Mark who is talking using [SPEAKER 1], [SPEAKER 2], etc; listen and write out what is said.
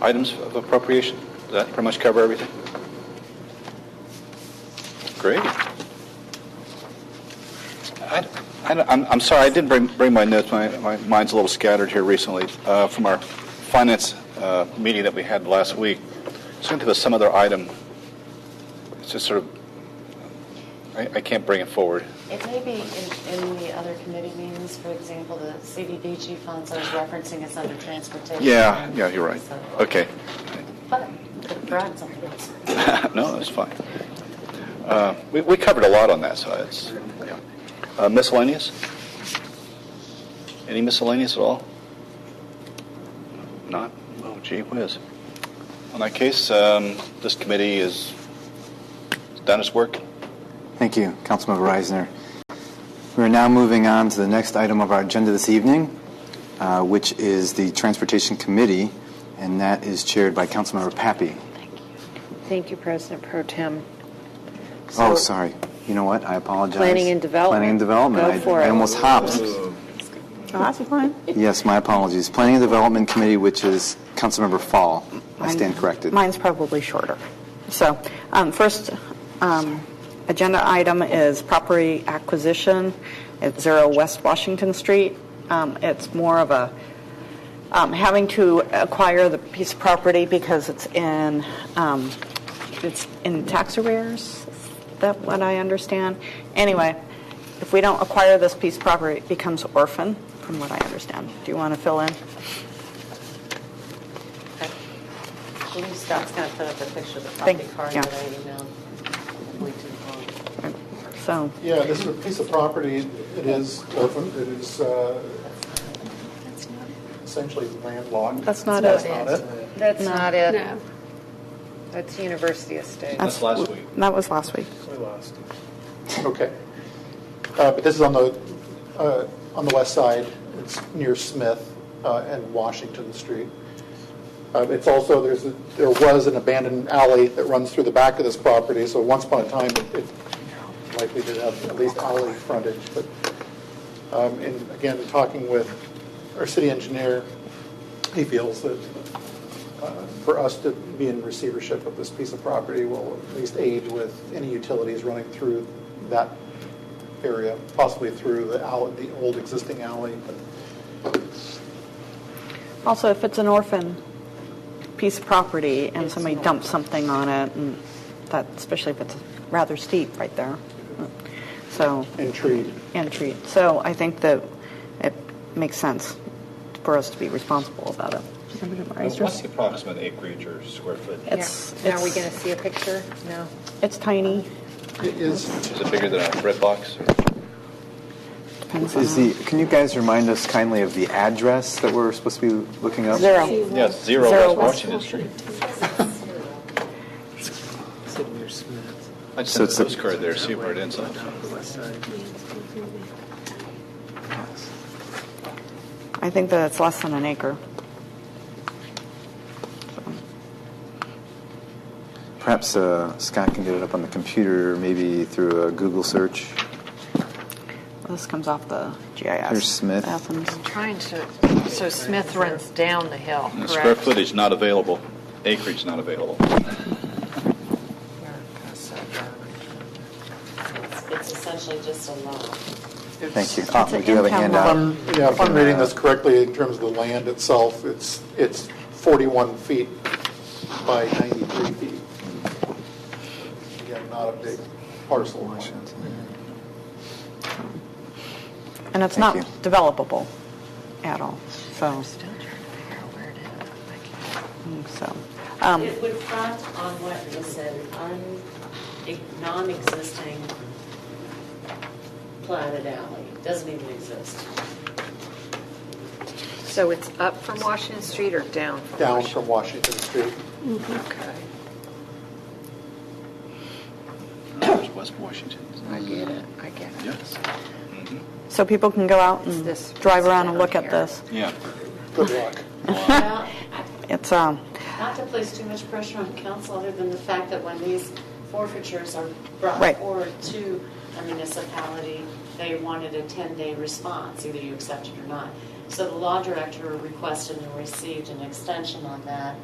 [SPEAKER 1] items of appropriation? Does that pretty much cover everything? Great. I, I don't- I'm, I'm sorry, I didn't bring, bring my notes, my, my mind's a little scattered here recently, uh, from our finance, uh, meeting that we had last week. Seemed to be some other item, it's just sort of, I, I can't bring it forward.
[SPEAKER 2] It may be in, in the other committee meetings, for example, the CDBG funds I was referencing is under transportation.
[SPEAKER 1] Yeah, yeah, you're right,
[SPEAKER 2] So-
[SPEAKER 1] okay.
[SPEAKER 2] But it brought something else.
[SPEAKER 1] No, that's fine. Uh, We, we covered a lot on that, so it's, yeah. Uh, miscellaneous? Any miscellaneous at all? Not? Oh, gee whiz. In that case, um, this committee is has done its work.
[SPEAKER 3] Thank you, Councilmember Reisner. We are now moving on to the next item of our agenda this evening, uh, which is the Transportation Committee, and that is chaired by Councilmember Pappy.
[SPEAKER 4] Thank you, President Pro Tem.
[SPEAKER 3] Oh,
[SPEAKER 4] So-
[SPEAKER 3] sorry. You know what? I apologize.
[SPEAKER 4] Planning and Development.
[SPEAKER 3] Planning and Development.
[SPEAKER 4] Go
[SPEAKER 3] I-
[SPEAKER 4] for
[SPEAKER 3] I
[SPEAKER 4] it.
[SPEAKER 3] almost hopped.
[SPEAKER 5] Oh, that's fine.
[SPEAKER 3] Yes, my apologies. Planning and Development Committee, which is Councilmember Fall. I stand corrected.
[SPEAKER 5] Mine's probably shorter. So, um, first um, agenda item is property acquisition at Zero West Washington Street. Um, It's more of a, um, having to acquire the piece of property because it's in, um, it's in tax arrears, is that what I understand? Anyway, if we don't acquire this piece of property, it becomes orphan, from what I understand. Do you want to fill in?
[SPEAKER 2] I believe Scott's going to put up a picture of the
[SPEAKER 5] Thank-
[SPEAKER 2] property card
[SPEAKER 5] yeah.
[SPEAKER 2] that I emailed. I believe too long.
[SPEAKER 5] So.
[SPEAKER 6] Yeah, this is a piece of property, it is orphan, it is uh, essentially landlocked.
[SPEAKER 5] That's not
[SPEAKER 6] That's
[SPEAKER 5] it.
[SPEAKER 6] not it.
[SPEAKER 4] That's not it.
[SPEAKER 7] No.
[SPEAKER 4] That's University Estate.
[SPEAKER 1] That's last week.
[SPEAKER 5] That was last week.
[SPEAKER 6] We lost. Okay. Uh, But this is on the, uh, on the west side, it's near Smith uh, and Washington Street. Uh, It's also, there's, a- there was an abandoned alley that runs through the back of this property, so once upon a time, it- it likely did have at least alley frontage, but, um, and again, talking with our city engineer, he feels that uh, for us to be in receivership of this piece of property will at least aid with any utilities running through that area, possibly through the alley, the old existing alley.
[SPEAKER 5] Also, if it's an orphan piece of property and somebody dumps something on it, and that, especially if it's rather steep right there, so,
[SPEAKER 6] And treed.
[SPEAKER 5] and treat. So I think that it makes sense for us to be responsible about it.
[SPEAKER 1] the approximate acreage or square foot?
[SPEAKER 5] It's,
[SPEAKER 4] Now, are we going to
[SPEAKER 5] it's,
[SPEAKER 4] see a picture? No.
[SPEAKER 5] it's tiny.
[SPEAKER 6] It is,
[SPEAKER 1] Is it bigger than a red box?
[SPEAKER 3] Is the, can you guys remind us kindly of the address that we're supposed to be looking up?
[SPEAKER 5] Zero.
[SPEAKER 1] Yes, zero West Washington Street. I just
[SPEAKER 3] So
[SPEAKER 1] sent
[SPEAKER 3] it's
[SPEAKER 1] a
[SPEAKER 3] the-
[SPEAKER 1] postcard there, see where it ends up.
[SPEAKER 5] I think that it's less than an acre.
[SPEAKER 3] Perhaps uh, Scott can get it up on the computer, maybe through a Google search.
[SPEAKER 5] This comes off the GIS.
[SPEAKER 3] Here's Smith.
[SPEAKER 5] Athens.
[SPEAKER 4] Trying to, so Smith runs down the hill,
[SPEAKER 1] And the Square
[SPEAKER 4] correct?
[SPEAKER 1] footage not available, acreage not available.
[SPEAKER 2] It's- It's essentially just a lot.
[SPEAKER 3] Thank you.
[SPEAKER 5] It's
[SPEAKER 3] Ah,
[SPEAKER 5] an
[SPEAKER 3] we do have a
[SPEAKER 5] in-town
[SPEAKER 3] handout.
[SPEAKER 5] lot.
[SPEAKER 6] um, yeah, if I'm reading this correctly, in terms of the land itself, it's, it's 41 feet by 93 feet. Again, not a big parcel. of land.
[SPEAKER 5] And it's not
[SPEAKER 3] Thank
[SPEAKER 5] developable at all, so,
[SPEAKER 4] Still trying to figure out where it is. I can't-
[SPEAKER 5] so. um,
[SPEAKER 2] It would front on what is an un, a non-existing platted alley, doesn't even exist.
[SPEAKER 4] So it's up from Washington Street or down from
[SPEAKER 6] Down
[SPEAKER 4] Washington?
[SPEAKER 6] from Washington Street.
[SPEAKER 4] Okay.
[SPEAKER 1] There's West Washington.
[SPEAKER 4] I get it, I get it.
[SPEAKER 1] Yes.
[SPEAKER 5] So people can go out
[SPEAKER 4] It's
[SPEAKER 5] and
[SPEAKER 4] this
[SPEAKER 5] drive
[SPEAKER 4] piece
[SPEAKER 5] around and
[SPEAKER 4] down
[SPEAKER 5] look at
[SPEAKER 4] here.
[SPEAKER 5] this.
[SPEAKER 1] Yeah.
[SPEAKER 6] Good luck.
[SPEAKER 2] Well,
[SPEAKER 5] It's, um,
[SPEAKER 2] Not to place too much pressure on council, other than the fact that when these forfeitures are brought
[SPEAKER 5] Right.
[SPEAKER 2] forward to a municipality, they wanted a 10-day response, either you accept it or not. So the law director requested and received an extension on that